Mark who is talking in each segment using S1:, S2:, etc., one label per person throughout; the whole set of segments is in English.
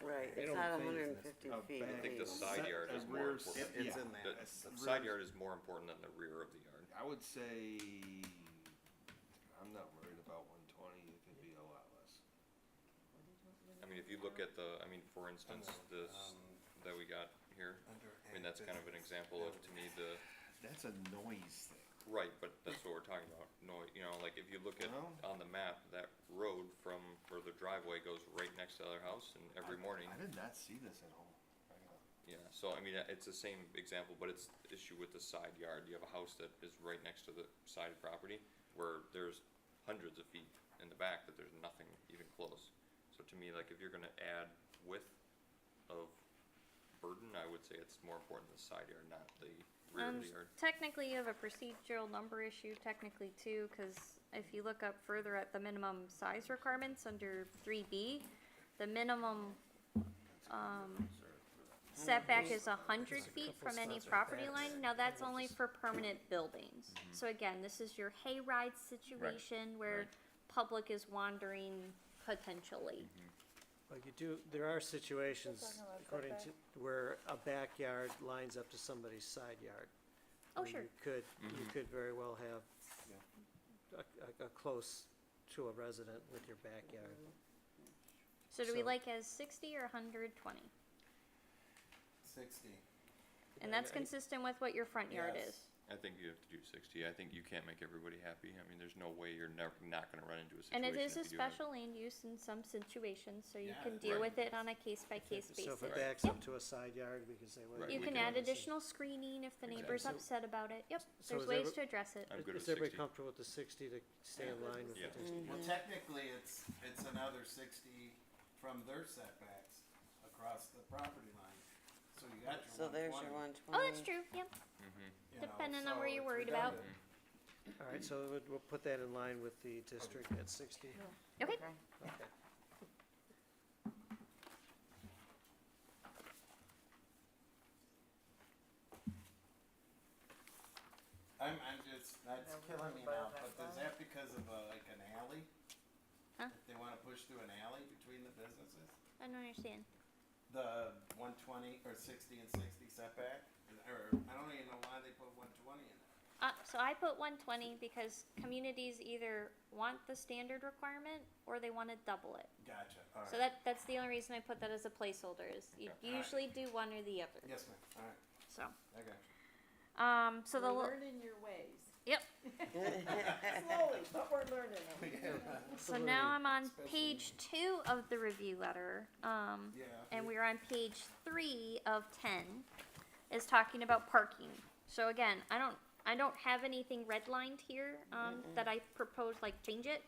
S1: They
S2: It's
S1: don't
S2: not
S1: say it's
S2: hundred and
S1: nec-
S2: fifty
S1: oh,
S2: feet.
S1: but
S3: I think the
S2: please.
S3: side
S4: Set
S3: yard
S4: a
S3: is more
S4: rear
S3: important.
S4: s-
S1: It's
S4: yeah.
S1: in
S3: The,
S1: that.
S4: That's
S3: the side
S4: rear-
S3: yard is more important than the rear of the yard.
S4: I would say, I'm not worried about one twenty, it could be a lot less.
S3: I mean, if you look at the, I mean, for instance, this
S1: Um,
S4: um,
S3: that we got here, I mean, that's kind of an example of, to me, the,
S4: That's a noise thing.
S3: right, but that's what we're talking about. No, you know, like, if you look at,
S4: Well-
S3: on the map, that road from where the driveway goes right next to their house, and every
S4: I-
S3: morning,
S4: I did not see this at home. I gotta-
S3: yeah, so, I mean, uh, it's the same example, but it's the issue with the side yard, you have a house that is right next to the side property, where there's hundreds of feet in the back that there's nothing even close. So to me, like, if you're gonna add width of burden, I would say it's more important the side yard, not the rear
S5: Um,
S3: of the yard.
S5: technically, you have a procedural number issue, technically too, because if you look up further at the minimum size requirements under three B, the minimum, um, setback is a hundred feet from any property line. Now, that's only for permanent buildings.
S6: Mm-hmm.
S5: So again, this is your hayride situation where public is wandering potentially.
S6: Mm-hmm. Well, you do, there are situations, according to, where a backyard lines up to somebody's side yard.
S5: Oh,
S6: where
S5: sure.
S6: You could, you
S3: Mm-hmm.
S6: could very well have a, a, a close to a resident with your backyard.
S5: So do we
S6: So-
S5: like as sixty or hundred twenty?
S1: Sixty.
S5: And that's
S6: I- I-
S5: consistent with what your front yard
S1: Yes.
S5: is.
S3: I think you have to do sixty, I think you can't make everybody happy, I mean, there's no way you're never, not gonna run into a
S5: And
S3: situation.
S5: it is a
S3: if you do have-
S5: special land use in some situations, so you
S1: Yeah,
S5: can
S1: it's
S5: deal
S3: right.
S5: with it on a case by case
S6: So
S5: basis.
S6: if it backs up to a side yard, we can say, well.
S3: Right,
S5: You
S3: we
S5: can
S3: can
S5: add additional screening if the neighbor's
S6: Exactly.
S5: upset about it, yep,
S6: So
S5: there's
S6: is
S5: ways
S6: every-
S5: to address it.
S3: I'm good with
S6: Is everybody
S3: 60.
S6: comfortable with the sixty to stay in line with
S3: Yeah.
S6: the district?
S1: Well, technically, it's, it's another sixty from their setbacks across the property line, so you got
S2: So
S1: your
S2: there's your
S1: one
S2: one
S5: Oh,
S2: twenty.
S5: that's true, yep,
S3: Mm-hmm.
S1: twenty.
S5: depending on where you're worried about.
S6: All right, so we'll, we'll put that in line with the district at sixty.
S5: okay,
S6: Okay.
S1: I'm, I'm just, that's
S2: Now we're
S1: killing me
S2: gonna
S1: now,
S2: buy
S1: but
S2: that
S1: is
S2: back.
S1: that because of uh, like an alley?
S5: Huh?
S1: If they wanna push through an alley between the businesses?
S5: I don't understand.
S1: The one twenty or sixty and sixty setback, or, I don't even know why they put one twenty in it.
S5: Uh, so I put one twenty because communities either want the standard requirement or they wanna double it.
S1: Gotcha,
S5: So
S1: alright,
S5: that, that's the only reason I put that as a placeholder is you
S1: Alright.
S5: usually do one or the other,
S1: yes ma'am, alright,
S5: so,
S1: I got you.
S5: um, so the.
S7: We're
S5: lo-
S7: learning your ways.
S5: Yep.
S7: Slowly, but we're learning them.
S5: So now I'm on
S1: Especially-
S5: page two of the review letter, um,
S1: Yeah.
S5: and we're on page three of ten, is talking about parking. So again, I don't, I don't have anything redlined here, um, that I propose, like, change it.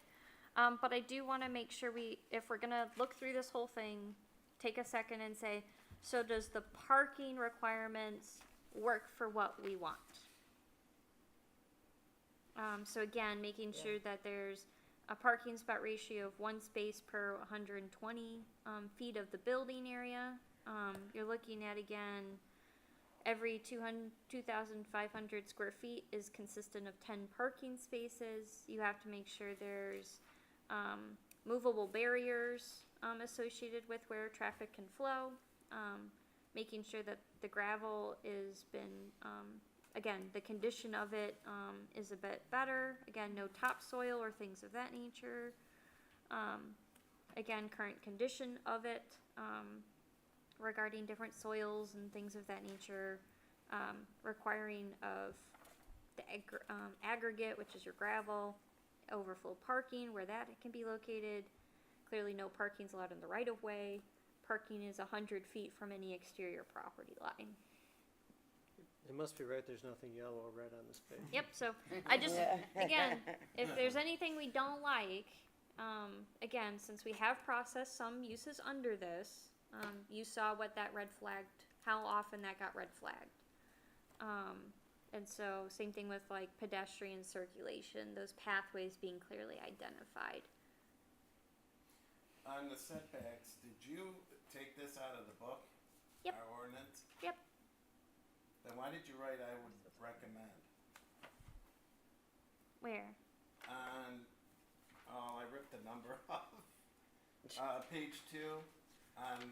S5: Um, but I do wanna make sure we, if we're gonna look through this whole thing, take a second and say, so does the parking requirements work for what we want? Um, so again, making sure that there's a parking spot ratio of one space per one hundred and twenty, um, feet of the building area. Um, you're looking at again, every two hundred, two thousand five hundred square feet is consistent of ten parking spaces. You have to make sure there's, um, movable barriers, um, associated with where traffic can flow. Um, making sure that the gravel is been, um, again, the condition of it, um, is a bit better. Again, no topsoil or things of that nature. Um, again, current condition of it, um, regarding different soils and things of that nature. Um, requiring of the ag- um, aggregate, which is your gravel, overflow parking, where that can be located. Clearly, no parking's allowed in the right of way. Parking is hundred feet from any exterior property line.
S6: It must be right, there's nothing yellow or red on this page.
S5: Yep, so I just, again, if there's anything we don't like, um, again, since we have processed some uses under this, um, you saw what that red flagged, how often that got red flagged. Um, and so same thing with like pedestrian circulation, those pathways being clearly identified.
S1: On the setbacks, did you take this out of the book?
S5: Yep.
S1: Our ordinance?
S5: Yep.
S1: Then why did you write I would recommend?
S5: Where?
S1: On, oh, I ripped the number off. Uh, page two, on